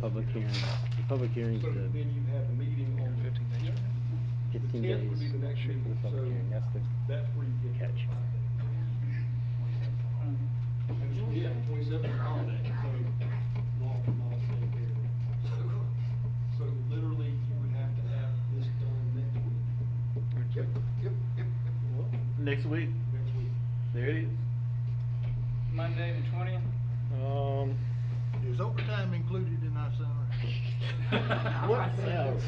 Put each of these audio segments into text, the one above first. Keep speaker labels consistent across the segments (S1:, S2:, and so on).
S1: public hearing, the public hearing's
S2: Mm-hmm. So
S1: the
S2: then you have the meeting on the.
S3: Fifteen days, right?
S2: The
S1: fifteen
S2: 10th
S1: days
S2: would be the next
S1: for the
S2: meeting,
S1: public
S2: so
S1: hearing, that's the,
S2: That's where you get.
S1: catch.
S4: Mm-hmm.
S2: And Yeah, twenty-seven holiday, so long, long thing here. So literally, you would have to have this done next week,
S3: Yep, yep, yep.
S5: Next week,
S2: next week.
S5: there it is.
S4: Monday the twentieth?
S5: Um,
S3: Is overtime included in our salary?
S5: what else?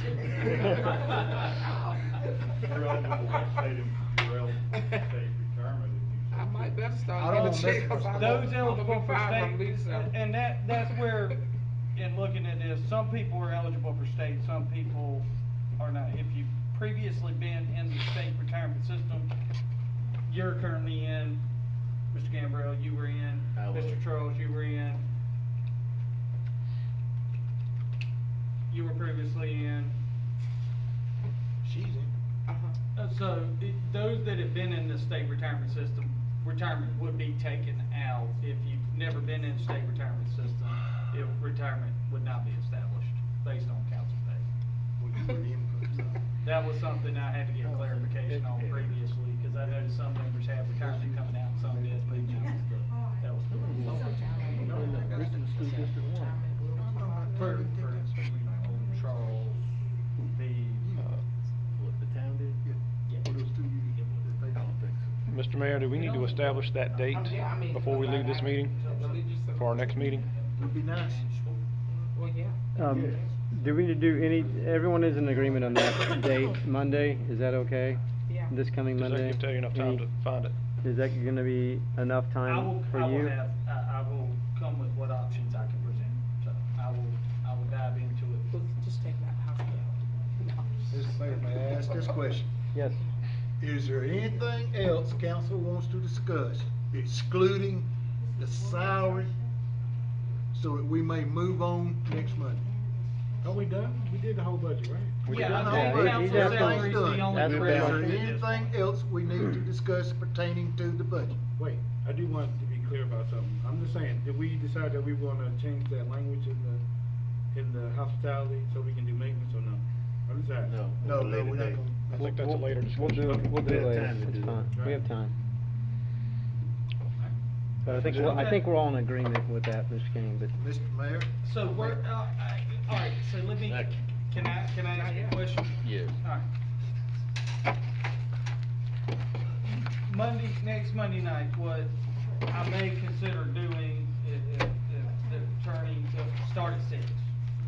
S6: You're eligible for state, em- you're eligible for state retirement if you.
S7: I might better
S3: I
S7: start
S3: don't
S7: getting
S3: want that
S7: a check. 'cause I
S3: Those
S7: don't-
S4: eligible
S7: I'm
S4: for
S7: fired from
S4: state,
S7: Lisa.
S4: and- and that, that's where, in looking at this, some people are eligible for state, some people are not. If you've previously been in the state retirement system, you're currently in, Mr. Gambrell, you were in,
S5: I was.
S4: Mr. Charles, you were in. You were previously in,
S3: She's in.
S7: Uh-huh.
S4: Uh, So, it- those that have been in the state retirement system, retirement would be taken out. If you've never been in the state retirement system, it, retirement would not be established based on council pay.
S3: Well, you were in for something.
S4: That was something I had to get clarification on previously, because I noticed some members have retirement coming out, and some didn't, but that was the, that was the For, for instance, on Charles, the, uh,
S5: What the town did?
S3: For those two years that they-
S8: Mr. Mayor, do we need to establish that date
S7: Um, yeah, I mean,
S8: before we leave this meeting?
S7: religious-
S8: For our next meeting?
S3: It'd be nice.
S7: Well, yeah.
S1: Um, do we do any, everyone is in agreement on that date, Monday, is that okay?
S7: Yeah.
S1: This coming
S8: Does that
S1: Monday?
S8: give Teddy enough time
S1: Any-
S8: to
S5: Mm-hmm.
S8: find it?
S1: Is that gonna be enough
S4: I will,
S1: time for
S4: I will
S1: you?
S4: have, I, I will come with what options I can present, so I will, I will dive into it.
S7: We'll Just take that house down.
S3: Mr. Mayor, may I ask this question?
S1: Yes,
S3: Is there anything else council wants to discuss excluding the salary so that we may move on next Monday?
S2: Are we done? We did the whole budget, right?
S1: We
S4: Yeah,
S1: did
S4: I
S1: that.
S4: think
S1: Yeah, he- he
S4: council
S1: definitely-
S4: salary is the
S1: That's
S4: only.
S1: pretty
S3: Is
S1: much
S4: real
S3: there
S4: thing at this point.
S3: anything else we need to discuss pertaining to the budget?
S2: Wait, I do want to be clear about something. I'm just saying, did we decide that we wanna change that language in the, in the hospitality so we can do maintenance or no? I'm just asking.
S5: No.
S3: No, no, we're not
S5: Later
S3: gonna.
S8: I think that's a
S1: We'll-
S8: later
S1: We'll
S8: discussion.
S1: do, it- we'll do
S5: We
S1: it
S5: have
S1: later,
S5: time to
S1: it's
S5: do it,
S1: fine, we have
S2: right?
S1: time. But I think, we're- I think we're all in agreement with that, Mr. King, but
S3: Mr. Mayor?
S4: So we're, uh, I- all right, so let me,
S5: Thank you.
S4: can I, can I ask you a question?
S5: Yes.
S4: All right. Monday, next Monday night, what I may consider doing if, if, if the attorney, if- start at six.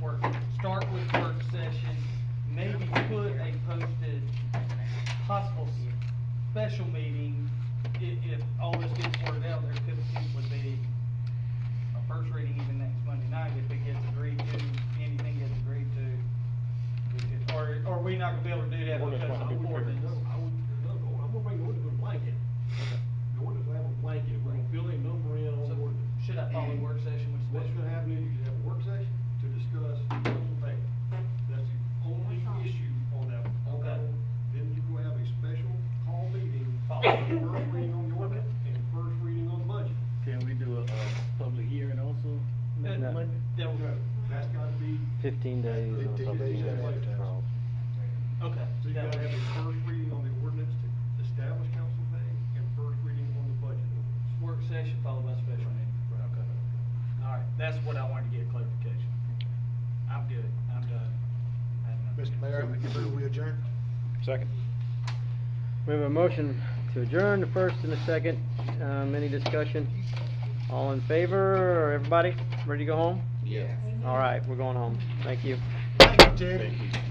S4: Work, start with work session, maybe put a posted possible special meeting. If, if all this gets worked out, there could, it would be a first reading even next Monday night if it gets agreed to, anything gets agreed to. we could- Or, or we not gonna be able to do that
S8: Ordinance
S4: because
S8: might
S4: of
S8: be
S4: the
S8: prepared.
S4: ordinance.
S2: I would, no, no, I'm gonna bring the ordinance with a blanket. The ordinance will have a blanket, we're gonna fill a number in on the
S4: So,
S2: ordinance.
S4: Should I follow work session with
S2: What's
S4: special?
S2: gonna happen is you should have a work session to discuss council pay. That's the only issue on that, on that one. Then you go have a special call meeting, following the first reading on the ordinance and first reading on the budget.
S5: Can we do a, uh public hearing also? next
S4: Uh,
S1: No.
S5: Monday?
S4: That
S2: No,
S4: would,
S2: that's gotta be,
S1: fifteen days on
S3: 15
S1: public
S3: days
S1: hearing.
S3: ahead of time.
S1: Charles.
S4: okay.
S2: so you
S4: that
S2: gotta
S4: would-
S2: have a first reading on the ordinance to establish council pay and first reading on the budget ordinance.
S4: Work session followed by special meeting. Okay. All right, that's what I wanted to get clarification. I'm good, I'm done. I had enough.
S3: Mr. Mayor, I move we adjourn.
S8: Second?
S1: We have a motion to adjourn, the first and the second, um, any discussion? All in favor, or everybody, ready to go home?
S7: Yes.
S1: All right, we're going home, thank you.
S3: Thank you, Teddy.